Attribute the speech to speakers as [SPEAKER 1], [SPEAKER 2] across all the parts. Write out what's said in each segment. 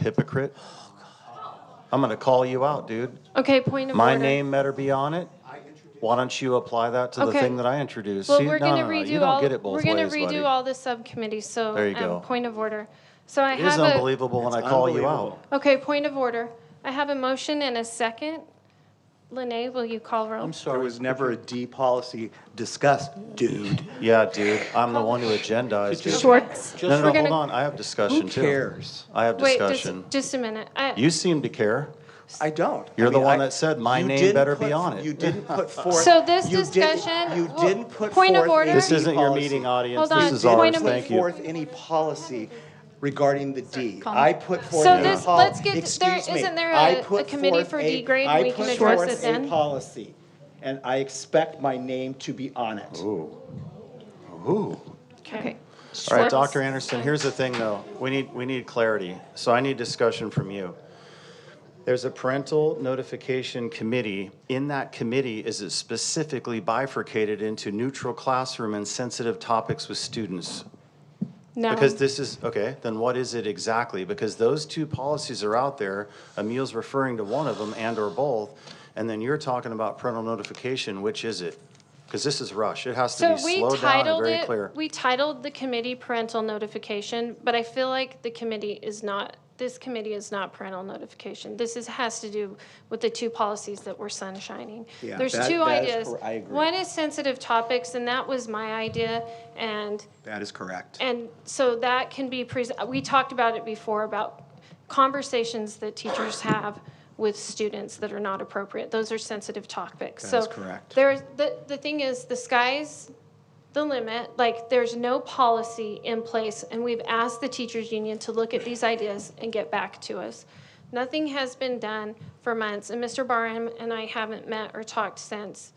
[SPEAKER 1] hypocrite. I'm gonna call you out, dude.
[SPEAKER 2] Okay, point of
[SPEAKER 1] My
[SPEAKER 2] order.
[SPEAKER 1] name better be on it. Why don't you apply that to the
[SPEAKER 2] Okay.
[SPEAKER 1] thing that I introduced?
[SPEAKER 2] Well,
[SPEAKER 1] See,
[SPEAKER 2] we're
[SPEAKER 1] no,
[SPEAKER 2] gonna
[SPEAKER 1] no, no, you
[SPEAKER 2] redo
[SPEAKER 1] don't
[SPEAKER 2] all,
[SPEAKER 1] get it both
[SPEAKER 2] we're gonna
[SPEAKER 1] ways, buddy.
[SPEAKER 2] redo all the subcommittees, so.
[SPEAKER 1] There you
[SPEAKER 2] um,
[SPEAKER 1] go.
[SPEAKER 2] Point of order. So I
[SPEAKER 1] It is
[SPEAKER 2] have a,
[SPEAKER 1] unbelievable when I
[SPEAKER 3] It's
[SPEAKER 1] call you
[SPEAKER 3] unbelievable.
[SPEAKER 1] out.
[SPEAKER 2] okay, point of order. I have a motion and a second. Lene, will you call roll?
[SPEAKER 1] I'm
[SPEAKER 3] There
[SPEAKER 1] sorry.
[SPEAKER 3] was never a D policy discussed, dude.
[SPEAKER 1] Yeah, dude, I'm the one who agendized it.
[SPEAKER 2] Schwartz.
[SPEAKER 1] No, no,
[SPEAKER 2] We're
[SPEAKER 1] no, hold
[SPEAKER 2] gonna-
[SPEAKER 1] on, I have discussion
[SPEAKER 3] Who
[SPEAKER 1] too.
[SPEAKER 3] cares?
[SPEAKER 1] I have
[SPEAKER 2] Wait, just,
[SPEAKER 1] discussion.
[SPEAKER 2] just a minute. I-
[SPEAKER 1] You seem to care.
[SPEAKER 3] I don't. I
[SPEAKER 1] You're the
[SPEAKER 3] mean,
[SPEAKER 1] one
[SPEAKER 3] I-
[SPEAKER 1] that said, "My
[SPEAKER 3] you
[SPEAKER 1] name
[SPEAKER 3] didn't
[SPEAKER 1] better
[SPEAKER 3] put-
[SPEAKER 1] be on it."
[SPEAKER 3] You didn't put forth.
[SPEAKER 2] So this
[SPEAKER 3] you didn't-
[SPEAKER 2] discussion-
[SPEAKER 3] You didn't put forth.
[SPEAKER 2] Point of order?
[SPEAKER 3] any
[SPEAKER 1] This isn't your
[SPEAKER 3] policy.
[SPEAKER 1] meeting audience,
[SPEAKER 2] Hold
[SPEAKER 1] this
[SPEAKER 2] on,
[SPEAKER 1] is
[SPEAKER 2] point
[SPEAKER 1] ours,
[SPEAKER 2] of-
[SPEAKER 1] thank
[SPEAKER 3] Didn't put
[SPEAKER 1] you.
[SPEAKER 3] forth any policy regarding the D.
[SPEAKER 4] calm.
[SPEAKER 3] I put forth.
[SPEAKER 2] So
[SPEAKER 3] a
[SPEAKER 2] this-
[SPEAKER 3] pol-
[SPEAKER 2] let's get- there-
[SPEAKER 3] Excuse me.
[SPEAKER 2] isn't there a-
[SPEAKER 3] I
[SPEAKER 2] a
[SPEAKER 3] put
[SPEAKER 2] committee
[SPEAKER 3] forth
[SPEAKER 2] for
[SPEAKER 3] a-
[SPEAKER 2] D grade and
[SPEAKER 3] I
[SPEAKER 2] we can
[SPEAKER 3] put
[SPEAKER 2] address
[SPEAKER 3] forth
[SPEAKER 2] it
[SPEAKER 3] a
[SPEAKER 2] then?
[SPEAKER 3] Policy, and I expect my name to be on it.
[SPEAKER 1] Ooh. Ooh.
[SPEAKER 2] Okay.
[SPEAKER 1] All right,
[SPEAKER 2] Schwartz.
[SPEAKER 1] Dr. Anderson, here's the thing, though. We need, we need clarity. So I need discussion from you. There's a parental notification committee. In that committee, is it specifically bifurcated into neutral classroom and sensitive topics with students?
[SPEAKER 2] No.
[SPEAKER 1] Because this is, okay, then what is it exactly? Because those two policies are out there, Emile's referring to one of them and/or both, and then you're talking about parental notification, which is it? Because this is rush, it has to
[SPEAKER 2] So
[SPEAKER 1] be
[SPEAKER 2] we
[SPEAKER 1] slowed down and
[SPEAKER 2] titled
[SPEAKER 1] very
[SPEAKER 2] it,
[SPEAKER 1] clear.
[SPEAKER 2] we titled the committee parental notification, but I feel like the committee is not, this committee is not parental notification. This is, has to do with the two policies that were sunshining.
[SPEAKER 3] Yeah,
[SPEAKER 2] There's
[SPEAKER 3] that-
[SPEAKER 2] two
[SPEAKER 3] that is
[SPEAKER 2] ideas.
[SPEAKER 3] cor- I agree.
[SPEAKER 2] One is sensitive topics, and that was my idea, and
[SPEAKER 3] That is correct.
[SPEAKER 2] and so that can be, pres- we talked about it before, about conversations that teachers have with students that are not appropriate. Those are sensitive topics.
[SPEAKER 3] That is
[SPEAKER 2] So
[SPEAKER 3] correct.
[SPEAKER 2] There's, the, the thing is, the sky's the limit. Like, there's no policy in place, and we've asked the teachers union to look at these ideas and get back to us. Nothing has been done for months, and Mr. Barham and I haven't met or talked since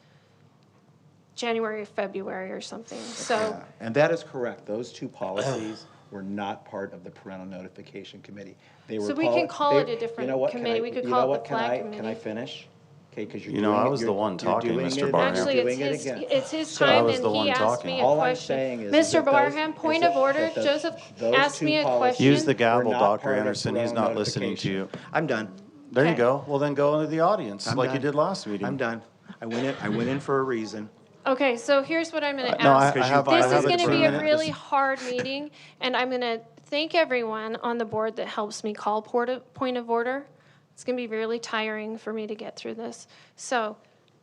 [SPEAKER 2] January or February or something, so.
[SPEAKER 3] Yeah, And that is correct. Those two policies were not part of the parental notification committee. They were.
[SPEAKER 2] So we can
[SPEAKER 3] poli-
[SPEAKER 2] call
[SPEAKER 3] they-
[SPEAKER 2] it a
[SPEAKER 3] you
[SPEAKER 2] different
[SPEAKER 3] know what, can
[SPEAKER 2] committee.
[SPEAKER 3] I-
[SPEAKER 2] We could
[SPEAKER 3] you
[SPEAKER 2] call
[SPEAKER 3] know
[SPEAKER 2] it the
[SPEAKER 3] what, can
[SPEAKER 2] flag
[SPEAKER 3] I- Can I
[SPEAKER 2] committee.
[SPEAKER 3] finish? Okay, because you're
[SPEAKER 1] You know,
[SPEAKER 3] doing
[SPEAKER 1] I
[SPEAKER 3] it-
[SPEAKER 1] was the
[SPEAKER 3] you're-
[SPEAKER 1] one
[SPEAKER 3] you're
[SPEAKER 1] talking,
[SPEAKER 3] doing
[SPEAKER 1] Mr.
[SPEAKER 3] it-
[SPEAKER 1] Barnham.
[SPEAKER 3] you're
[SPEAKER 2] Actually,
[SPEAKER 3] doing it
[SPEAKER 2] it's his,
[SPEAKER 3] again.
[SPEAKER 2] it's his
[SPEAKER 3] So-
[SPEAKER 1] I
[SPEAKER 2] time,
[SPEAKER 1] was
[SPEAKER 2] and
[SPEAKER 1] the one
[SPEAKER 2] he asked
[SPEAKER 1] talking.
[SPEAKER 2] me a question.
[SPEAKER 3] All I'm saying is. is
[SPEAKER 2] Mr.
[SPEAKER 3] that those-
[SPEAKER 2] Barham,
[SPEAKER 3] is
[SPEAKER 2] point
[SPEAKER 3] that-
[SPEAKER 2] of order,
[SPEAKER 3] that those-
[SPEAKER 2] Joseph
[SPEAKER 3] those
[SPEAKER 2] asked
[SPEAKER 3] two
[SPEAKER 2] me a
[SPEAKER 3] policies
[SPEAKER 2] question.
[SPEAKER 1] Use the gavel,
[SPEAKER 3] were not
[SPEAKER 1] Dr.
[SPEAKER 3] part of
[SPEAKER 1] Anderson. He's
[SPEAKER 3] parental
[SPEAKER 1] not listening to
[SPEAKER 3] notification.
[SPEAKER 1] you.
[SPEAKER 3] I'm done.
[SPEAKER 1] There you
[SPEAKER 2] Okay.
[SPEAKER 1] go. Well, then go into the audience
[SPEAKER 3] I'm
[SPEAKER 1] like you
[SPEAKER 3] done.
[SPEAKER 1] did last meeting.
[SPEAKER 3] I'm done. I went in, I went in for a reason.
[SPEAKER 2] Okay, so here's what I'm gonna
[SPEAKER 1] Uh, No, I,
[SPEAKER 2] ask.
[SPEAKER 1] I
[SPEAKER 3] you-
[SPEAKER 1] have. I
[SPEAKER 2] This
[SPEAKER 1] have
[SPEAKER 2] is
[SPEAKER 1] it
[SPEAKER 2] gonna
[SPEAKER 1] for
[SPEAKER 2] be a
[SPEAKER 1] minute.
[SPEAKER 2] really
[SPEAKER 1] This-
[SPEAKER 2] hard meeting, and I'm gonna thank everyone on the board that helps me call port of, point of order. It's gonna be really tiring for me to get through this. So,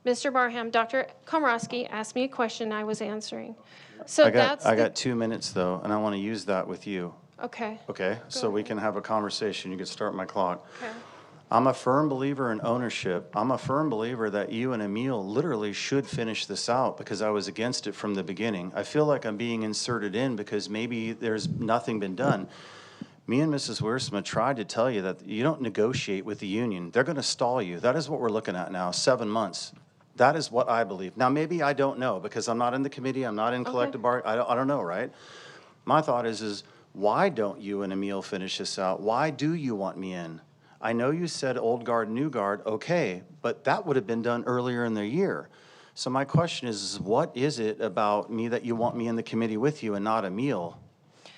[SPEAKER 2] Mr. Barham, Dr. Komrosky asked me a question I was answering. So
[SPEAKER 1] I got.
[SPEAKER 2] that's
[SPEAKER 1] I
[SPEAKER 2] the-
[SPEAKER 1] got two minutes though, and I want to use that with you.
[SPEAKER 2] Okay,
[SPEAKER 1] Okay, so we can have a conversation. You can start my clock.
[SPEAKER 2] okay.
[SPEAKER 1] I'm a firm believer in ownership. I'm a firm believer that you and Emil literally should finish this out because I was against it from the beginning. I feel like I'm being inserted in because maybe there's nothing been done. Me and Mrs. Wiersma tried to tell you that you don't negotiate with the union. They're going to stall you. That is what we're looking at now, seven months. That is what I believe. Now, maybe I don't know because I'm not in the committee, I'm not in collective bar, I don't, I don't know, right? My thought is, is why don't you and Emil finish this out? Why do you want me in? I know you said old guard, new guard, okay, but that would have been done earlier in the year. So my question is, is what is it about me that you want me in the committee with you and not Emil?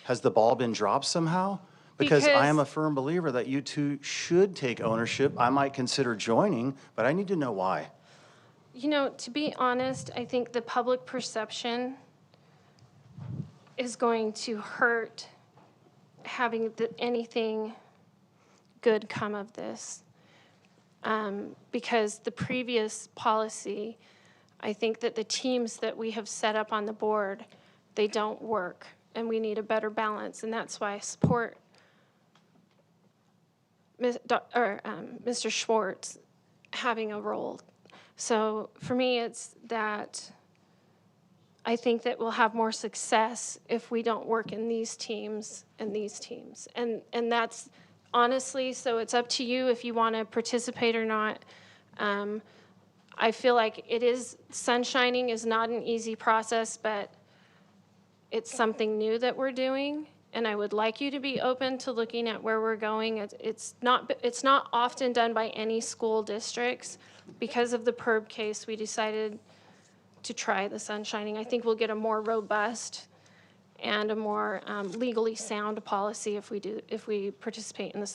[SPEAKER 1] Has the ball been dropped somehow? Because I am a
[SPEAKER 2] Because-
[SPEAKER 1] firm believer that you two should take ownership. I might consider joining, but I need to know why.
[SPEAKER 2] You know, to be honest, I think the public perception is going to hurt having the, anything good come of this. Um, because the previous policy, I think that the teams that we have set up on the board, they don't work, and we need a better balance, and that's why I support Ms. Doc- or, um, Mr. Schwartz having a role. So for me, it's that I think that we'll have more success if we don't work in these teams and these teams. And, and that's honestly, so it's up to you if you want to participate or not. Um, I feel like it is, sunshining is not an easy process, but it's something new that we're doing, and I would like you to be open to looking at where we're going. It's- It's not, it's not often done by any school districts. Because of the PERB case, we decided to try the sunshining. I think we'll get a more robust and a more um, legally sound policy if we do, if we participate in the